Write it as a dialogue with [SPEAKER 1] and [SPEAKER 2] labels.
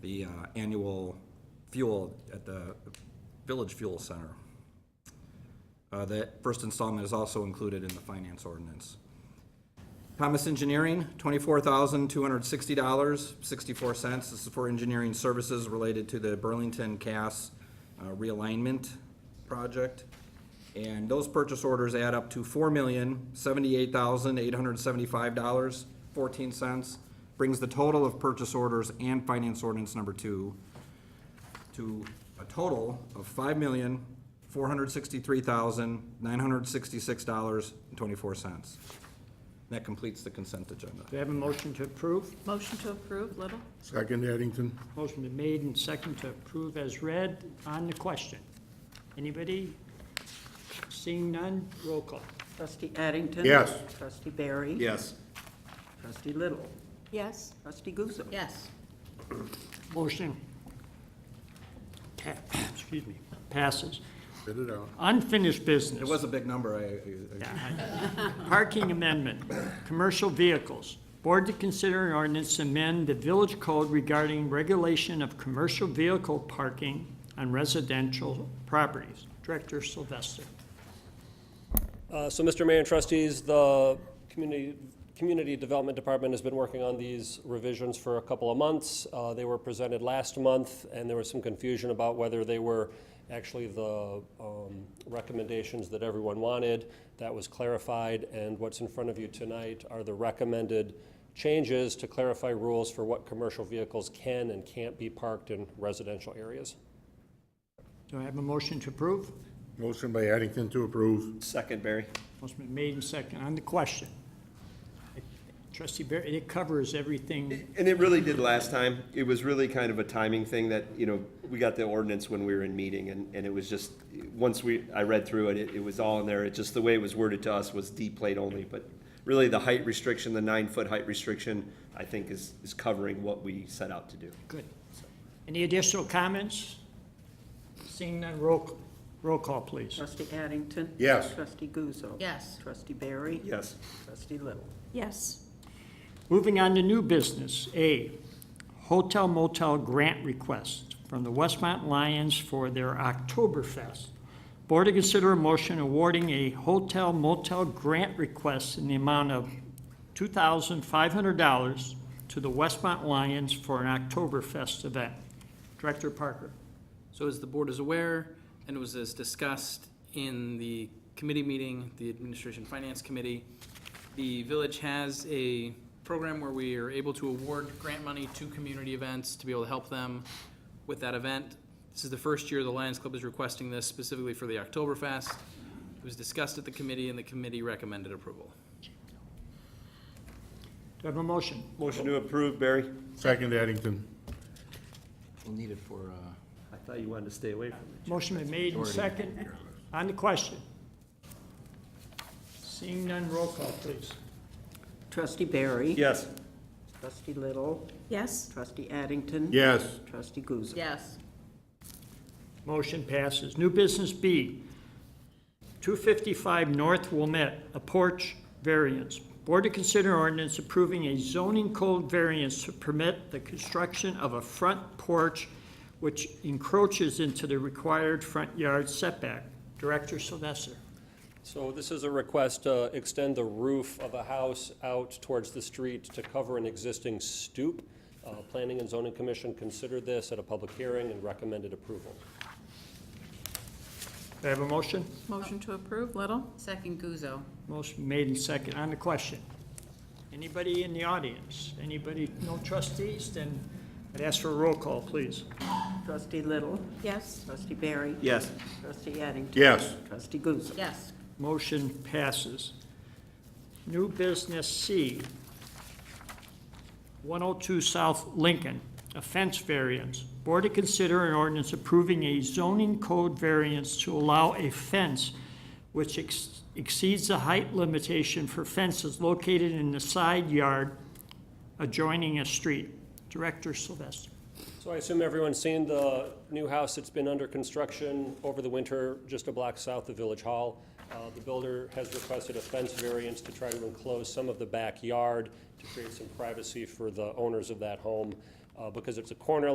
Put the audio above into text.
[SPEAKER 1] the uh, annual fuel at the Village Fuel Center. Uh, That first installment is also included in the finance ordinance. Thomas Engineering, twenty-four thousand, two hundred sixty dollars, sixty-four cents. This is for engineering services related to the Burlington Cass uh, realignment project. And those purchase orders add up to four million, seventy-eight thousand, eight hundred seventy-five dollars, fourteen cents. Brings the total of purchase orders and finance ordinance number two to a total of five million, four hundred sixty-three thousand, nine hundred sixty-six dollars and twenty-four cents. That completes the consent agenda.
[SPEAKER 2] Do I have a motion to approve?
[SPEAKER 3] Motion to approve, Little?
[SPEAKER 4] Second, Addington.
[SPEAKER 2] Motion been made and second to approve as read on the question. Anybody? Seeing none, roll call.
[SPEAKER 5] Trustee Addington.
[SPEAKER 4] Yes.
[SPEAKER 5] Trustee Barry.
[SPEAKER 4] Yes.
[SPEAKER 5] Trustee Little.
[SPEAKER 3] Yes.
[SPEAKER 5] Trustee Guzzo.
[SPEAKER 3] Yes.
[SPEAKER 2] Motion. pa- Excuse me, passes.
[SPEAKER 4] Spit it out.
[SPEAKER 2] Unfinished business.
[SPEAKER 1] It was a big number, I- I, I,
[SPEAKER 2] Parking amendment, commercial vehicles. Board to consider an ordinance to amend the village code regarding regulation of commercial vehicle parking on residential properties. Director Sylvester.
[SPEAKER 6] Uh, So, Mr. Mayor and trustees, the Community, Community Development Department has been working on these revisions for a couple of months. Uh, They were presented last month, and there was some confusion about whether they were actually the um, recommendations that everyone wanted. That was clarified, and what's in front of you tonight are the recommended changes to clarify rules for what commercial vehicles can and can't be parked in residential areas.
[SPEAKER 2] Do I have a motion to approve?
[SPEAKER 4] Motion by Addington to approve.
[SPEAKER 7] Second, Barry.
[SPEAKER 2] Motion been made and second on the question. Trustee Barry, it covers everything.
[SPEAKER 7] And it really did last time. It was really kind of a timing thing that, you know, we got the ordinance when we were in meeting and, and it was just, once we, I read through it, it, it was all in there. It just, the way it was worded to us was D plate only, but really the height restriction, the nine foot height restriction, I think is, is covering what we set out to do.
[SPEAKER 2] Good. Any additional comments? Seeing none, roll, roll call, please.
[SPEAKER 5] Trustee Addington.
[SPEAKER 4] Yes.
[SPEAKER 5] Trustee Guzzo.
[SPEAKER 3] Yes.
[SPEAKER 5] Trustee Barry.
[SPEAKER 7] Yes.
[SPEAKER 5] Trustee Little.
[SPEAKER 3] Yes.
[SPEAKER 2] Moving on to new business, A, hotel motel grant request from the Westmont Lions for their Oktoberfest. Board to consider a motion awarding a hotel motel grant request in the amount of $2,500 to the Westmont Lions for an Oktoberfest event. Director Parker.
[SPEAKER 8] So as the board is aware, and it was as discussed in the committee meeting, the Administration Finance Committee, the village has a program where we are able to award grant money to community events to be able to help them with that event. This is the first year the Lions Club is requesting this specifically for the Oktoberfest. It was discussed at the committee, and the committee recommended approval.
[SPEAKER 2] Do I have a motion?
[SPEAKER 7] Motion to approve, Barry.
[SPEAKER 4] Second, Addington.
[SPEAKER 1] we'll need it for, uh,
[SPEAKER 7] I thought you wanted to stay away from it.
[SPEAKER 2] Motion been made and second. On the question. Seeing none, roll call, please.
[SPEAKER 5] Trustee Barry.
[SPEAKER 7] Yes.
[SPEAKER 5] Trustee Little.
[SPEAKER 3] Yes.
[SPEAKER 5] Trustee Addington.
[SPEAKER 4] Yes.
[SPEAKER 5] Trustee Guzzo.
[SPEAKER 3] Yes.
[SPEAKER 2] Motion passes. New business B, 255 North Wilmette, a porch variance. Board to consider ordinance approving a zoning code variance to permit the construction of a front porch which encroaches into the required front yard setback. Director Sylvester.
[SPEAKER 6] So this is a request to extend the roof of a house out towards the street to cover an existing stoop. Uh, Planning and Zoning Commission considered this at a public hearing and recommended approval.
[SPEAKER 2] Do I have a motion?
[SPEAKER 3] Motion to approve, Little? Second, Guzzo.
[SPEAKER 2] Motion made and second on the question. Anybody in the audience? Anybody, no trustees? Then I'd ask for a roll call, please.
[SPEAKER 5] Trustee Little.
[SPEAKER 3] Yes.
[SPEAKER 5] Trustee Barry.
[SPEAKER 7] Yes.
[SPEAKER 5] Trustee Addington.
[SPEAKER 4] Yes.
[SPEAKER 5] Trustee Guzzo.
[SPEAKER 3] Yes.
[SPEAKER 2] Motion passes. New business C, 102 South Lincoln, a fence variance. Board to consider an ordinance approving a zoning code variance to allow a fence which ex- exceeds the height limitation for fences located in the side yard adjoining a street. Director Sylvester.
[SPEAKER 6] So I assume everyone's seen the new house that's been under construction over the winter, just a block south of Village Hall. Uh, The builder has requested a fence variance to try to enclose some of the backyard to create some privacy for the owners of that home. Uh, Because it's a corner